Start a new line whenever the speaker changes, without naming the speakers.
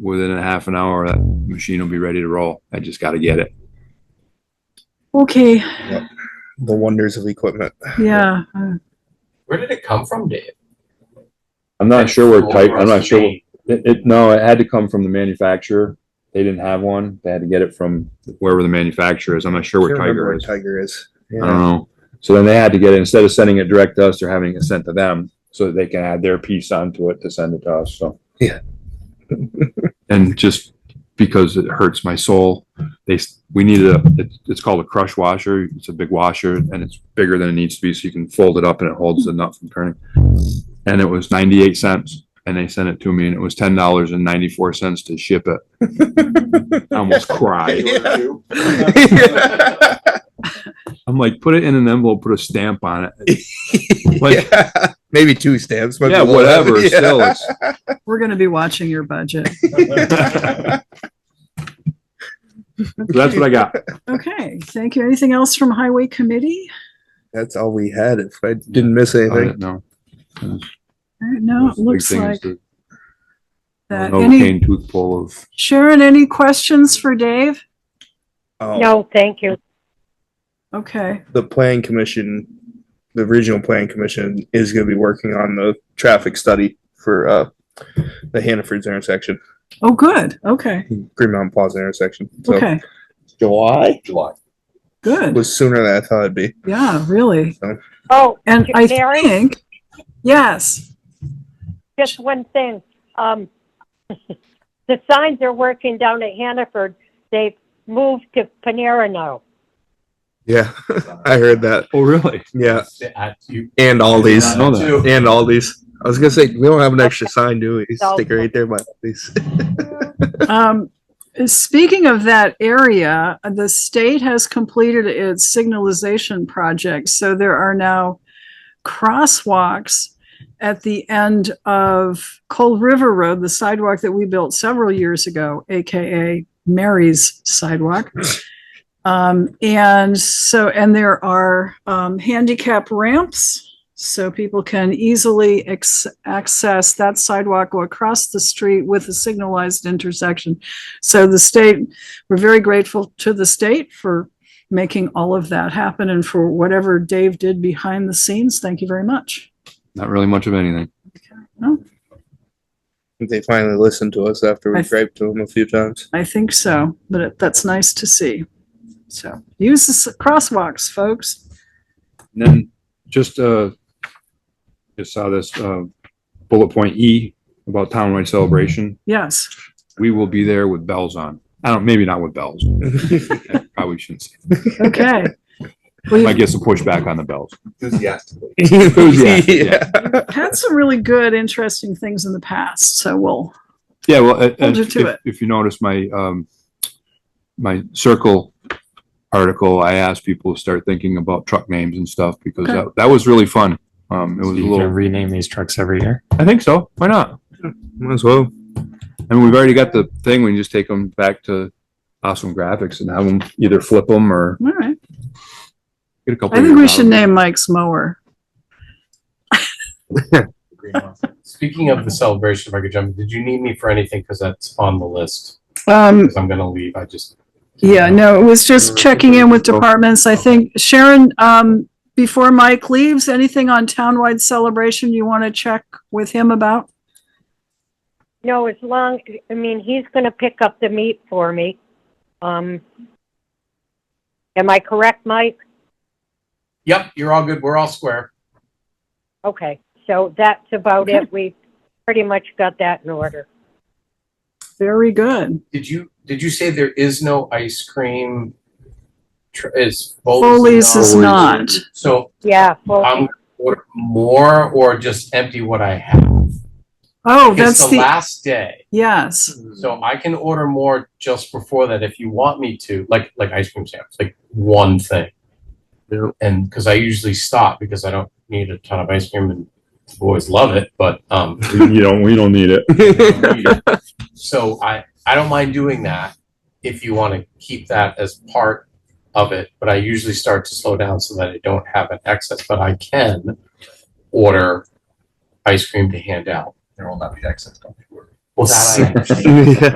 within a half an hour, that machine will be ready to roll. I just gotta get it.
Okay,
the wonders of equipment.
yeah, uh,
Where did it come from, Dave?
I'm not sure where
Or
type, I'm not
it's
sure.
made.
It, it, no, it had to come from the manufacturer. They didn't have one. They had to get it from wherever the manufacturer is. I'm not sure
Can't
where
remember
Tiger
where
is.
Tiger is.
I don't
Yeah.
know. So then they had to get it, instead of sending it direct to us, they're having it sent to them so that they can add their piece onto it to send it to us, so.
Yeah.
And just because it hurts my soul, they, s- we needed a, it's, it's called a crush washer. It's a big washer and it's bigger than it needs to be, so you can fold it up and it holds the nut from turning. And it was ninety-eight cents and they sent it to me and it was ten dollars and ninety-four cents to ship it. I almost cried.
Yeah.
I'm like, put it in an envelope, put a stamp on it. Like,
Yeah. Maybe two stamps. might be
yeah,
a little-
whatever.
Yeah.
Still, it's,
we're gonna be watching your budget.
that's what I got.
Okay, thank you. Anything else from Highway Committee?
That's all we had. If I didn't miss anything,
No,
All right, Uh, No, it looks like that. Any,
Cane tooth pull of.
Sharon, any questions for Dave?
Oh,
No, thank you.
Okay,
the plan commission, the regional plan commission is going to be working on the traffic study for uh, the Hannaford's intersection,
oh, good, okay,
Green Mountain Plaza intersection. So
okay,
July
July.
good,
was sooner than I thought it'd be.
yeah, really.
Oh,
And I
Mary?
think, yes,
just one thing. Um, the signs are working down at Hannaford. They've moved to Panera now.
Yeah, I heard that.
Oh, really?
Yeah,
At you.
and Aldi's.
I know that.
Too.
And Aldi's. I was gonna say we don't have an extra sign, do we? Stick it right there by Aldi's.
um, speaking of that area, the state has completed its signalization project, so there are now crosswalks at the end of Cold River Road, the sidewalk that we built several years ago, AKA Mary's sidewalk. Um, and so, and there are, um, handicap ramps. So people can easily ex- access that sidewalk or across the street with a signalized intersection. So the state, we're very grateful to the state for making all of that happen and for whatever Dave did behind the scenes. Thank you very much.
Not really much of anything.
They finally listened to us after
I
we
th-
griped to them a few times.
I think so, but it- that's nice to see. So use the s- crosswalks, folks.
And then just, uh, just saw this, uh, bullet point E about townwide celebration.
Yes.
We will be there with bells on. I don't, maybe not with bells. I Probably shouldn't say.
Okay.
Might
We've
get some pushback on the bells.
Enthusiastically.
Enthusiastic, yeah.
had some really good, interesting things in the past, so we'll,
Yeah, well, uh, uh,
Hold you to
if,
it.
if you notice my, um, my circle article, I asked people to start thinking about truck names and stuff because
Okay.
that, that was really fun. Um, it
So
was a
you can
little,
rename these trucks every year.
I think so. Why not?
Might as well.
I mean, we've already got the thing. We can just take them back to awesome graphics and have them either flip them or
all right.
get a couple.
I think
years
we
out
should
of it.
name Mike's mower.
Speaking of the celebration, if I could jump, did you need me for anything? Because that's on the list.
Hmm.
Um,
Because I'm gonna leave. I just.
yeah, no, it was just checking in with departments. I think, Sharon, um, before Mike leaves, anything on townwide celebration you want to check with him about?
No, as long, I mean, he's going to pick up the meat for me. Um, am I correct, Mike?
Yep, you're all good. We're all square.
Okay, so that's about
Okay.
it. We pretty much got that in order.
Very good.
Did you, did you say there is no ice cream? tr- Is.
Foley's is not.
So
Yeah, well,
I'm gonna order more or just empty what I have.
Oh,
It's
that's
the
the,
last day.
yes.
Mm-hmm.
So I can order more just before that if you want me to, like like ice cream sandwich, like one thing. And because I usually stop because I don't need a ton of ice cream and the boys love it, but um,
You don't, we don't need it.
I don't need it. so I I don't mind doing that if you want to keep that as part of it. But I usually start to slow down so that I don't have an excess, but I can order ice cream to hand out. There will not be excess. Don't worry. Well, that I understand.